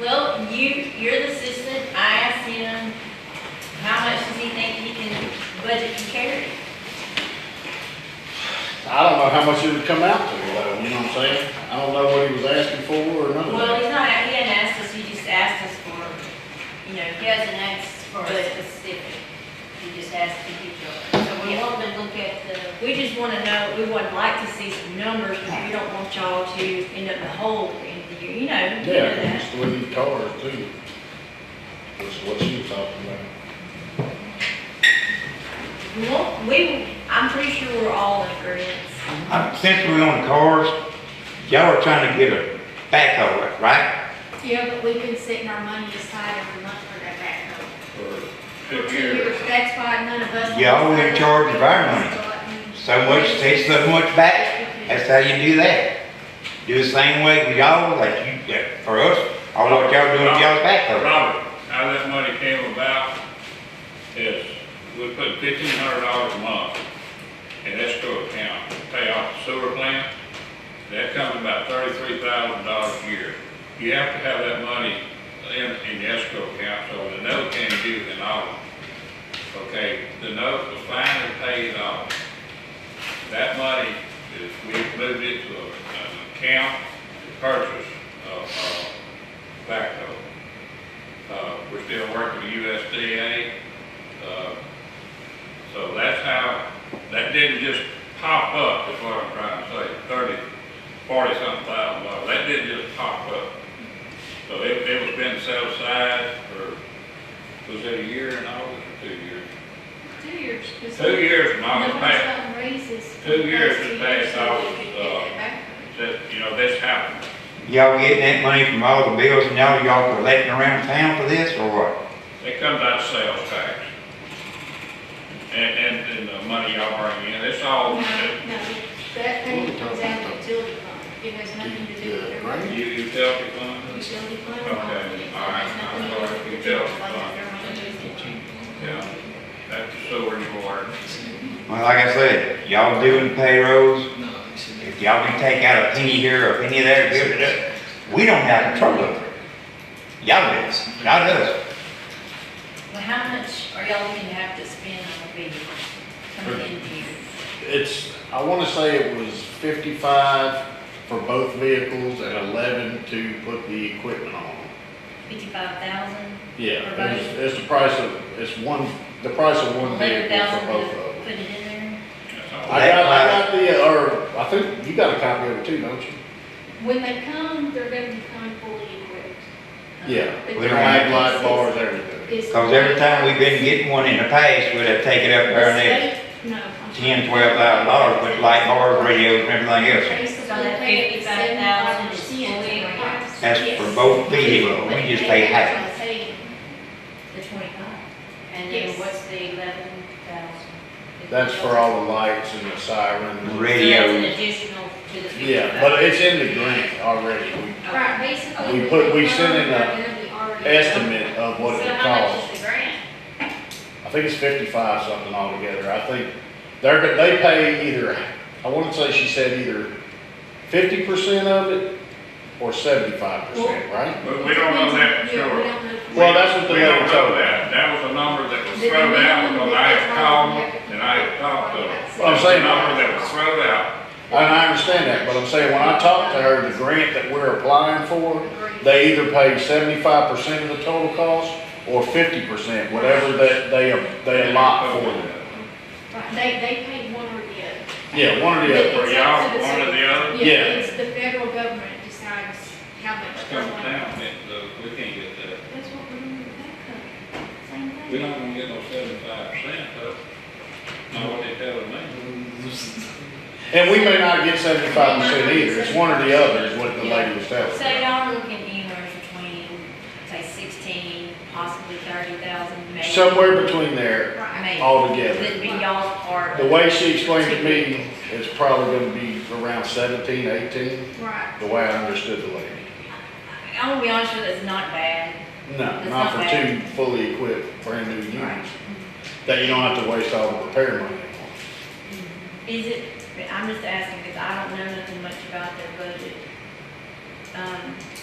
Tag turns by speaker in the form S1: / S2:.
S1: Well, you, you're the assistant, I asked him, how much does he think he can budget to carry?
S2: I don't know how much it would come out to, though, you know what I'm saying? I don't know what he was asking for or none of
S1: Well,
S2: that.
S1: he's not, he hadn't asked us, he just asked us for, you know,
S3: He hasn't asked for
S1: for
S3: it,
S1: a specific.
S3: he just asked if he could. So we
S1: Yeah.
S3: want to look at the,
S1: We just wanna know, we would like to see some numbers, because we don't want y'all to end up in the hole at the end of the year, you know, you know
S2: Yeah,
S1: that.
S2: it's the new cars too. That's what she was talking about.
S1: We want, we, I'm pretty sure we're all in agreement.
S4: Uh, Since we're on cars, y'all are trying to get a backhoe, right?
S5: Yeah, but we've been setting our money aside every month for that backhoe.
S2: Or-
S5: For two years, that's why none of us.
S4: Y'all were in charge of our money. So much, take so much back, that's how you do that. Do the same way with y'all, like you, that for us, all what y'all doing with y'all's backhoe.
S6: Robert, how that money came about is we put fifteen hundred dollars a month in escrow account to pay off the sewer plant. That comes about thirty-three thousand dollars a year. You have to have that money in, in the escrow account, so the note can not due in August. Okay, the note was finally paid off. That money is, we moved it to a- an account to purchase, uh, uh, backhoe. Uh, we're still working with USDA, uh, so that's how, that didn't just pop up, is what I'm trying to say, thirty, forty something thousand dollars, that didn't just pop up. So it, it was been set aside for, was it a year and August or two years?
S5: Two years. 'cause
S6: Two years and
S5: no one's
S6: August passed.
S5: gotten raises.
S6: Two years has
S5: Two
S6: passed,
S5: years,
S6: I
S5: so we
S6: was,
S5: could get
S6: uh,
S5: that back.
S6: That, you know, this happened.
S4: Y'all getting that money from all the bills and y'all, y'all collecting around town for this or what?
S6: It comes out of sales tax. And, and, and the money y'all bring in, it's all,
S5: No, no, that thing comes out of the utility fund. It has nothing to do with their
S6: you,
S5: money.
S6: you tell me one,
S5: Utility fund.
S6: Okay, all right, I'm sorry, utility fund. yeah, that's the sewer and water.
S4: Well, like I said, y'all doing payrolls,
S7: No, you should
S4: if y'all can take out a penny here or a penny there, build it up, we don't have control over it. Y'all do, not us.
S3: well, how much are y'all looking to have to spend on the vehicle coming in here?
S2: It's, I wanna say it was fifty-five for both vehicles and eleven to put the equipment on.
S3: Fifty-five thousand?
S2: Yeah,
S3: For both?
S2: it's, it's the price of, it's one, the price of one
S3: Eleven
S2: vehicle for
S3: thousand
S2: both of
S3: to
S2: them.
S3: put it in there?
S6: That's all.
S2: I got, I got the, uh, or, I think you got a copy of it too, don't you?
S5: When they come, they're gonna be coming fully equipped.
S2: Yeah.
S5: But
S4: We
S5: the
S4: don't
S2: Mag
S4: have
S2: light bars,
S5: difference
S2: everything.
S5: is- is-
S4: Cause every time we've been getting one in the past, we'd have taken up
S5: The
S4: our next
S5: state- No. I'm sorry.
S4: ten, twelve thousand dollars with light bars, radios, and everything else.
S5: Basically,
S3: So that
S5: they
S3: 55,000
S5: get
S3: is
S5: 75%
S3: fully
S5: of the price.
S4: That's for both vehicles, we just pay half.
S5: That's what I'm saying.
S3: The twenty-five? And
S5: Yes.
S3: then what's the eleven thousand?
S2: That's for all the lights and the sirens.
S3: So that's an
S4: Radios,
S3: additional to the fifty-five?
S2: Yeah, but it's in the grant already. We
S5: Right, basically.
S2: We put- we
S5: they
S2: sent in a
S5: come, they're gonna be already-
S2: Estimate of what it would
S3: So how much
S2: cost.
S3: is the grant?
S2: I think it's fifty-five something altogether. I think they're, they pay either, I want to say she said either fifty percent of it or seventy-five percent, right?
S6: But we don't know that for
S5: Yeah, we
S6: sure.
S5: don't know.
S2: Well, that's what the
S6: We don't
S2: lady told
S6: know
S2: me.
S6: that, that was a number that was
S5: Did they
S6: thrown out,
S5: know
S6: because
S5: that
S6: I
S5: they
S6: had
S5: told
S6: called
S5: them?
S6: and I had talked to them.
S5: Well,
S2: I'm saying-
S6: That number that was thrown out,
S2: And I understand that, but I'm saying when I talked to her, the grant that we're applying for, they either pay seventy-five percent of the total cost or fifty percent, whatever that they, they allot for them.
S5: Right, They, they paid one or the other.
S2: Yeah, one or the other.
S6: For
S5: It's
S6: y'all,
S5: up to the
S6: one or the
S5: city.
S6: other?
S5: Yeah,
S2: Yeah.
S5: it's the federal government decides how much.
S6: It's
S5: they
S6: coming
S5: want.
S6: down, it, uh, we can't get that.
S5: That's what we're doing with that company. Same
S6: We're
S5: thing.
S6: not gonna get no seventy-five percent, though. Not what they telling me.
S2: And we may not get seventy-five percent either, it's one or the other is what the lady was telling
S3: So
S2: me.
S3: y'all looking anywhere between, say sixteen, possibly thirty thousand, maybe?
S2: Somewhere between there
S3: Maybe.
S2: altogether.
S3: Would be y'all's part.
S2: The way she explained to me, it's probably gonna be around seventeen, eighteen,
S5: Right.
S2: the way I understood the lady.
S3: I'm gonna be honest with you, it's not bad.
S2: No,
S3: That's
S2: not
S3: not
S2: for two fully equipped, brand new units, that you don't have to waste all the repair money on.
S3: Is it, I'm just asking because I don't know nothing much about their budget. Um,